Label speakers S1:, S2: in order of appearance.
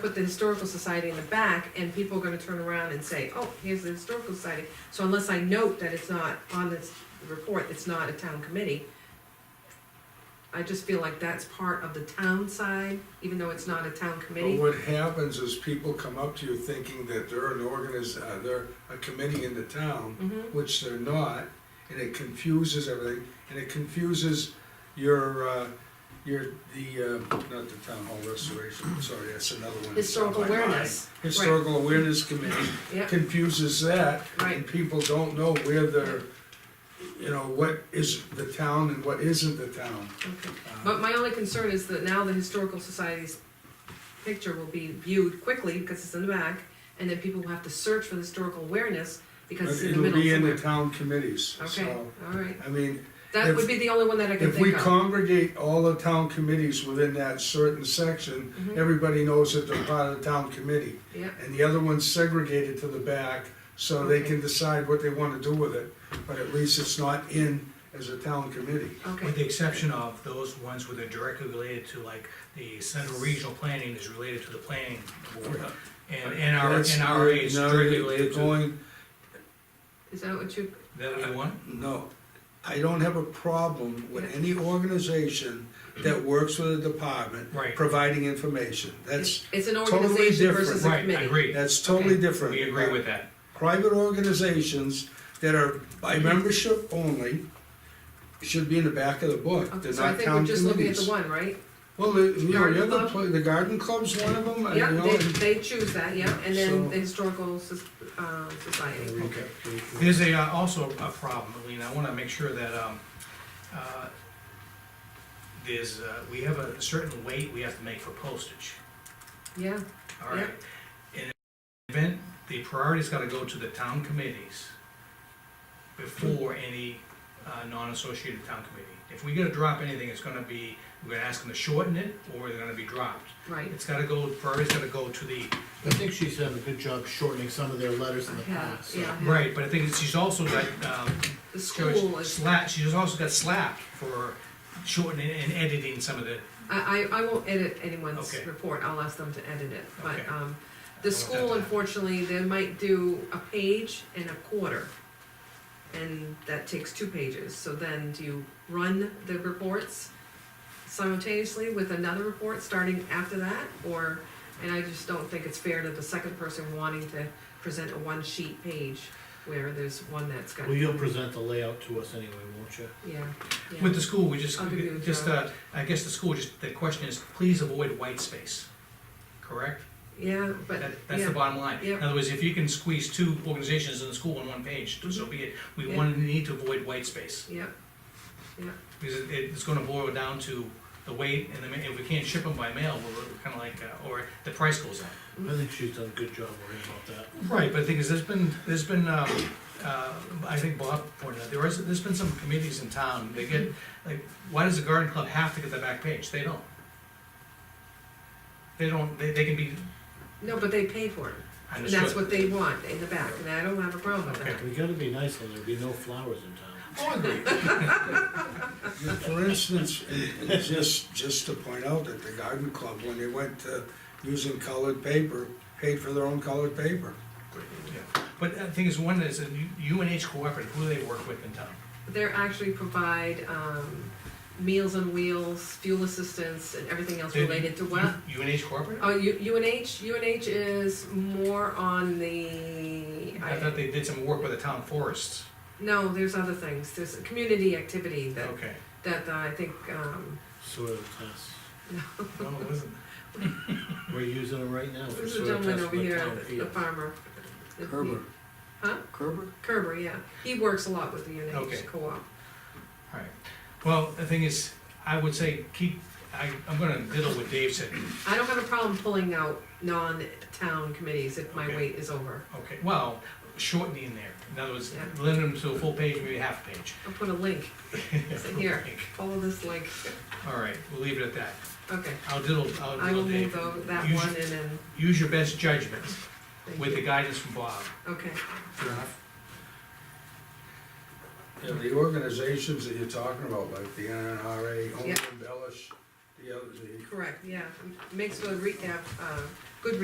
S1: put the historical society in the back, and people are gonna turn around and say, oh, here's the historical society. So unless I note that it's not on this report, it's not a town committee, I just feel like that's part of the town side, even though it's not a town
S2: But
S1: committee.
S2: what happens is people come up to you thinking that they're an organiz, uh, they're a committee in the town,
S1: Mhm.
S2: which they're not, and it confuses everything, and it confuses your, uh, your, the, uh, not the town hall restoration, sorry, that's another one. that's on
S1: Historical
S2: my mind.
S1: awareness,
S2: Historical awareness committee
S1: yeah,
S2: confuses that,
S1: right,
S2: and people don't know where they're, you know, what is the town and what isn't the town.
S1: okay.
S2: Uh,
S1: But my only concern is that now the historical society's picture will be viewed quickly, because it's in the back, and then people will have to search for the historical awareness, because it's in the
S2: It'll
S1: middle
S2: be in the
S1: somewhere.
S2: town committees,
S1: Okay,
S2: so,
S1: alright,
S2: I mean,
S1: that
S2: if-
S1: would be the only one that I can
S2: If we
S1: think of.
S2: congregate all the town committees within that certain section,
S1: Mhm.
S2: everybody knows that they're part of the town committee.
S1: Yeah,
S2: And the other one's segregated to the back, so they can decide what they wanna do with it, but at least it's not in as a town committee.
S1: okay,
S3: With the exception of those ones where they're directly related to, like, the central regional planning is related to the planning board. And NR,
S2: That's-
S3: NRA is
S2: no,
S3: directly
S2: they're
S3: related to,
S2: going-
S1: is that what you,
S3: that we want?
S2: No, I don't have a problem with any organization that works with a department.
S3: Right.
S2: Providing information, that's,
S1: it's it's an
S2: totally
S1: organization
S2: different.
S1: versus a
S3: Right,
S1: committee.
S3: I agree,
S2: that's totally
S1: Okay.
S2: different.
S3: we agree with that.
S2: private organizations that are by membership only should be in the back of the book.
S1: Okay,
S2: They're
S1: so I
S2: not
S1: think we're
S2: town
S1: just looking at the
S2: committees.
S1: one, right?
S2: Well, the- you know, the
S1: Garden
S2: other,
S1: club.
S2: pla- the garden club's one of them, and, you
S1: Yeah,
S2: know.
S1: they,
S2: and-
S1: they choose that, yeah, and then
S2: So-
S1: the historical, Soc- uh, society.
S3: Okay. There's a, uh, also a problem, Lean, I wanna make sure that, um, uh, there's, uh, we have a certain weight we have to make for postage,
S1: Yeah,
S3: all right? In an event, the priority's gotta go to the town committees before any, uh, non-associated town committee. If we gotta drop anything, it's gonna be, we're gonna ask them to shorten it, or they're gonna be dropped.
S1: right,
S3: It's gotta go, priority's gotta go to the
S4: I think she's done a good job shortening some of their letters in the
S1: yeah,
S4: past, so.
S1: yeah.
S3: Right, but I think she's also got, um,
S1: The
S3: George
S1: school is,
S3: slap, she just also got slapped for shortening and editing some of the,
S1: I, I, I won't edit anyone's
S3: Okay.
S1: report, I'll ask them to edit it, but,
S3: Okay.
S1: um,
S3: I
S1: the
S3: don't want that
S1: school
S3: to happen.
S1: unfortunately, they might do a page and a quarter. And that takes two pages, so then do you run the reports simultaneously with another report starting after that? Or, and I just don't think it's fair to the second person wanting to present a one-sheet page where there's one that's got,
S4: Well,
S1: yeah,
S4: you'll present the layout to us anyway, won't you?
S1: yeah.
S3: with the school, we just,
S1: I'll give you a
S3: just, uh, I guess the school, just, the question is, please avoid white space, correct?
S1: Yeah, but,
S3: That, that's the
S1: yeah,
S3: bottom line.
S1: yeah.
S3: In other words, if you can squeeze two organizations in the school on one page, so be it, we
S1: Yeah.
S3: want, need to avoid white space.
S1: yeah,
S3: Because it, it's gonna boil down to the weight, and the ma- if we can't ship them by mail, we're kinda like, uh, or the price goes up.
S4: I think she's done a good job worrying about
S3: Right, but the thing is, there's been, there's been, um, uh, I think Bob pointed out, there is, there's been some committees in town, they get, like, why does the garden club have to get the back page? They don't. They don't, they, they can be
S1: no, but they pay for it. And that's
S3: understood.
S1: what they want in the back, and I don't have a problem with that.
S4: that. We gotta be nice, or there'll be no flowers in town.
S3: Oh, I agree.
S2: For instance, and- and just, just to point out that the garden club, when they went to using colored paper, paid for their own colored paper.
S3: Yeah. But uh, the thing is, one is, U and H Cooperative, who do they work with in town?
S1: They're actually provide, um, meals on wheels, fuel assistance, and everything else
S3: They-
S1: related to what?
S3: U and H Cooperative?
S1: Oh, U, UNH, UNH is more on the,
S3: I thought
S1: I,
S3: they did some work with the town forests.
S1: no, there's other things, there's a community activity that,
S3: Okay.
S1: that uh, I think, um,
S4: Soil tests,
S3: No, it wasn't.
S4: we're using them right now for
S1: there's a
S4: soil
S1: gentleman
S4: tests
S1: over
S4: in the
S1: here,
S4: town
S1: the
S4: field.
S1: farmer.
S2: Kerber.
S1: Huh?
S2: Kerber?
S1: Kerber, yeah, he works a lot with the
S3: Okay.
S1: UNH co-op.
S3: Alright, well, the thing is, I would say, keep, I, I'm gonna diddle what Dave said,
S1: I don't have a problem pulling out non-town committees if my
S3: Okay.
S1: wait is over.
S3: Okay, well, shortening there, in other words,
S1: Yeah.
S3: limit them to a full page, maybe a half page.
S1: I'll put a link, Say, here, follow this link,
S3: All right, we'll leave it at that.
S1: okay.
S3: I'll diddle, I'll
S1: I will
S3: diddle
S1: move
S3: Dave.
S1: tho- that
S3: Use-
S1: one and then,
S3: Use your best judgment
S1: thank
S3: with the
S1: you.
S3: guidance from Bob.
S1: Okay,
S3: Fair enough.
S2: Yeah, the organizations that you're talking about, like the NRA, Home
S1: Yeah.
S2: Embellish, the other, the
S1: correct, yeah, Makesfield Rehab, um,